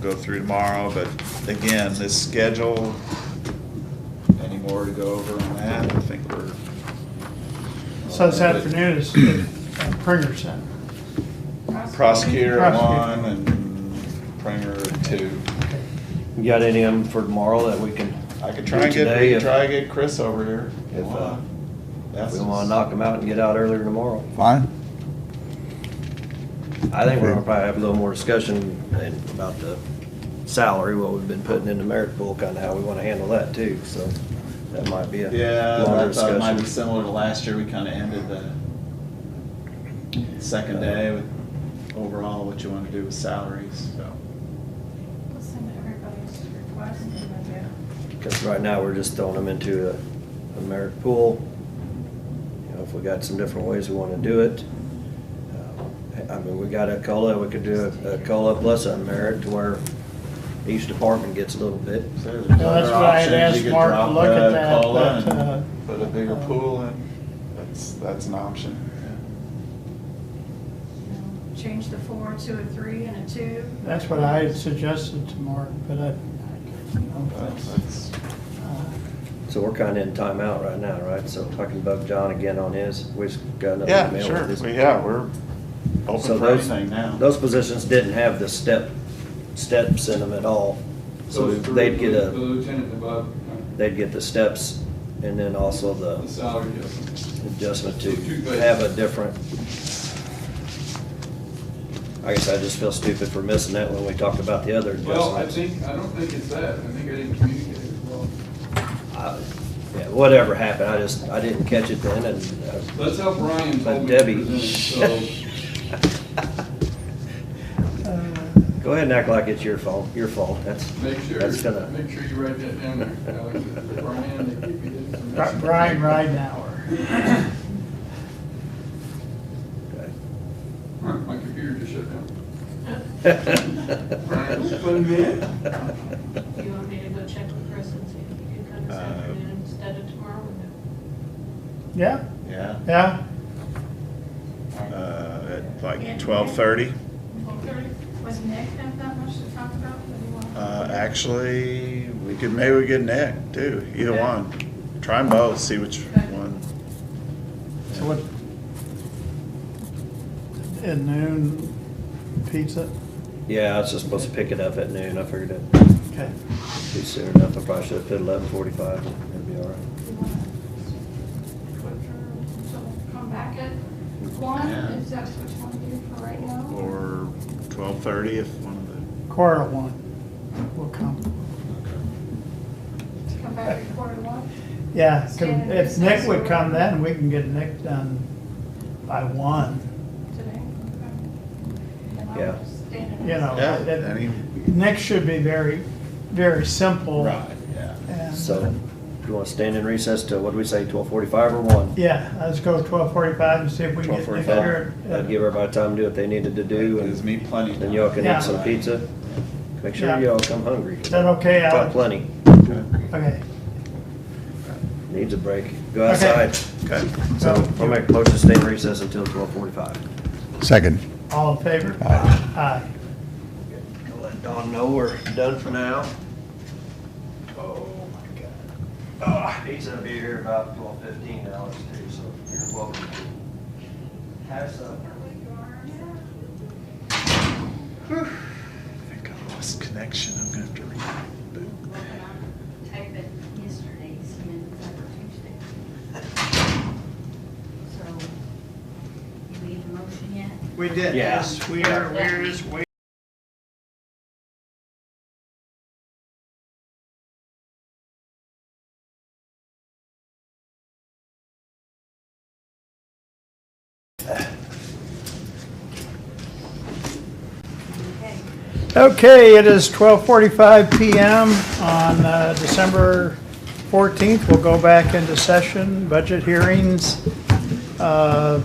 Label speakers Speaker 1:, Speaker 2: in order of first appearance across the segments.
Speaker 1: go through tomorrow, but again, this schedule, any more to go over on that? I think we're.
Speaker 2: So this afternoon is the uh, Printer Center.
Speaker 1: Prosecutor at
Speaker 2: Prosecutor.
Speaker 1: one and Pringer at two.
Speaker 3: You got any of them for tomorrow that we can?
Speaker 1: I could try and get,
Speaker 3: Today, if-
Speaker 1: try and get Chris over here.
Speaker 3: If, uh,
Speaker 1: That's
Speaker 3: We wanna knock them out and get out earlier tomorrow.
Speaker 4: Fine.
Speaker 3: I think we're gonna probably have a little more discussion and about the salary, what we've been putting in the merit pool, kinda how we wanna handle that too, so that might be a
Speaker 1: Yeah,
Speaker 3: longer
Speaker 1: I thought it might be
Speaker 3: discussion.
Speaker 1: similar to last year, we kinda ended the second
Speaker 3: Uh,
Speaker 1: day with overall what you wanna do with salaries, so.
Speaker 5: Listen, everybody's requesting, but yeah.
Speaker 3: Cause right now, we're just throwing them into a, a merit pool. You know, if we got some different ways we wanna do it. Uh, I mean, we got a COLA, we could do a- a COLA plus a merit to where each department gets a little bit.
Speaker 1: so there's
Speaker 2: Well, that's
Speaker 1: other
Speaker 2: what I had
Speaker 1: options.
Speaker 2: asked
Speaker 1: You could
Speaker 2: Mark to
Speaker 1: drop
Speaker 2: look at
Speaker 1: the
Speaker 2: that,
Speaker 1: COLA
Speaker 2: but,
Speaker 1: and
Speaker 2: uh,
Speaker 1: Put a bigger
Speaker 2: uh,
Speaker 1: pool in, that's, that's an option.
Speaker 5: you know, Change the four to a three and a two.
Speaker 2: That's what I had suggested to Mark, but I, I don't
Speaker 1: Well,
Speaker 2: know if
Speaker 1: that's-
Speaker 2: that's, uh,
Speaker 3: So we're kinda in timeout right now, right? So I can bug John again on his, we just got another email.
Speaker 1: Yeah,
Speaker 3: with
Speaker 1: sure,
Speaker 3: his-
Speaker 1: Well, yeah, we're
Speaker 3: So
Speaker 1: open for
Speaker 3: those-
Speaker 1: anything now.
Speaker 3: Those positions didn't have the step, steps in them at all, so
Speaker 6: Those three,
Speaker 3: they'd get
Speaker 6: the the
Speaker 3: a,
Speaker 6: lieutenant above, uh,
Speaker 3: they'd get the steps and then also
Speaker 6: the
Speaker 3: the
Speaker 6: salary adjustment.
Speaker 3: adjustment to
Speaker 6: Two days.
Speaker 3: have a different. I guess I just feel stupid for missing that when we talked about the other
Speaker 6: Well, I
Speaker 3: adjustments.
Speaker 6: think, I don't think it's that, I think I didn't communicate it well.
Speaker 3: I- yeah, Whatever happened, I just, I didn't catch it then and, uh,
Speaker 6: That's how Brian
Speaker 3: but
Speaker 6: told me to
Speaker 3: Debbie.
Speaker 6: present it, so.
Speaker 2: Uh,
Speaker 3: Go ahead and act like it's your fault, your fault, that's,
Speaker 6: Make sure,
Speaker 3: that's gonna.
Speaker 6: make sure you write that down there, Alex, that Brian, they give you the
Speaker 2: Bri-
Speaker 6: information.
Speaker 2: uh, Brian Ridenhour.
Speaker 3: okay.
Speaker 6: Huh, My computer just shut down.
Speaker 5: You want me to go check with Chris and see if he can come this
Speaker 1: Uh,
Speaker 5: afternoon instead of tomorrow? or no?
Speaker 2: Yeah,
Speaker 1: Yeah,
Speaker 2: yeah,
Speaker 1: uh, at like twelve thirty.
Speaker 5: Well, there- Was Nick have that much to talk about? What do you want?
Speaker 1: Uh, actually, we could, maybe we get Nick too, either
Speaker 5: Okay.
Speaker 1: one. Try them both, see which
Speaker 5: Okay.
Speaker 1: one.
Speaker 2: so what? At noon, pizza?
Speaker 3: Yeah, I was just supposed to pick it up at noon, I figured it'd
Speaker 2: Okay.
Speaker 3: be soon enough, I probably should've put eleven forty-five, it'd be all right.
Speaker 5: Do you wanna quit for- until Come back at one,
Speaker 1: Yeah.
Speaker 5: if that's what you want to do for right now?
Speaker 1: Or twelve thirty if one of
Speaker 2: Quarter to one will come.
Speaker 5: Come back at quarter to one?
Speaker 2: Yeah, come- if Nick would come then, we can get Nick done by one.
Speaker 5: today. And I'll
Speaker 3: Yeah.
Speaker 5: just stand in
Speaker 2: You
Speaker 5: it.
Speaker 2: know,
Speaker 1: the. Yeah,
Speaker 2: that-
Speaker 1: any.
Speaker 2: Nick should be very, very simple.
Speaker 1: yeah.
Speaker 2: and- uh,
Speaker 3: So, you wanna stand in recess till, what do we say, twelve forty-five or one?
Speaker 2: Yeah, let's go twelve forty-five and see if we can get Nick
Speaker 1: 12:45.
Speaker 2: here.
Speaker 3: That'd give everybody time to do what they needed to do,
Speaker 1: Gives
Speaker 3: and
Speaker 1: me plenty.
Speaker 3: then y'all can
Speaker 2: Yeah.
Speaker 3: eat some pizza. Make
Speaker 2: Yeah.
Speaker 3: sure y'all come hungry.
Speaker 2: Is that okay,
Speaker 3: Got
Speaker 2: Alex?
Speaker 3: plenty,
Speaker 1: Okay.
Speaker 2: Okay,
Speaker 3: needs a break, go
Speaker 2: Okay.
Speaker 3: outside.
Speaker 1: Okay.
Speaker 3: So, I'll make a motion to stay in recess until twelve forty-five.
Speaker 4: Second.
Speaker 2: all in favor?
Speaker 4: Aye.
Speaker 2: Aye.
Speaker 3: I'll Let Dawn know we're done for now. Oh, my God. Ah, He's gonna be here about twelve fifteen hours too, so you're welcome to have some.
Speaker 1: I think I lost connection, I'm gonna have to reboot.
Speaker 7: Type it yesterday's minutes over Tuesday. So, you need a motion yet?
Speaker 2: We did,
Speaker 3: Yeah.
Speaker 2: yes, we are, we're just waiting
Speaker 7: Okay.
Speaker 2: Okay, it is 12:45 PM on uh, December 14th. We'll go back into session, budget hearings. Uh,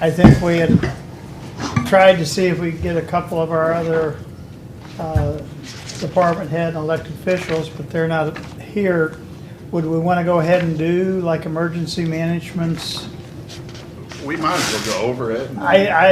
Speaker 2: I think we had tried to see if we could get a couple of our other uh, department head and elected officials, but they're not here. Would we want to go ahead and do like emergency management's?
Speaker 1: We might as well go over it. and-
Speaker 2: I, I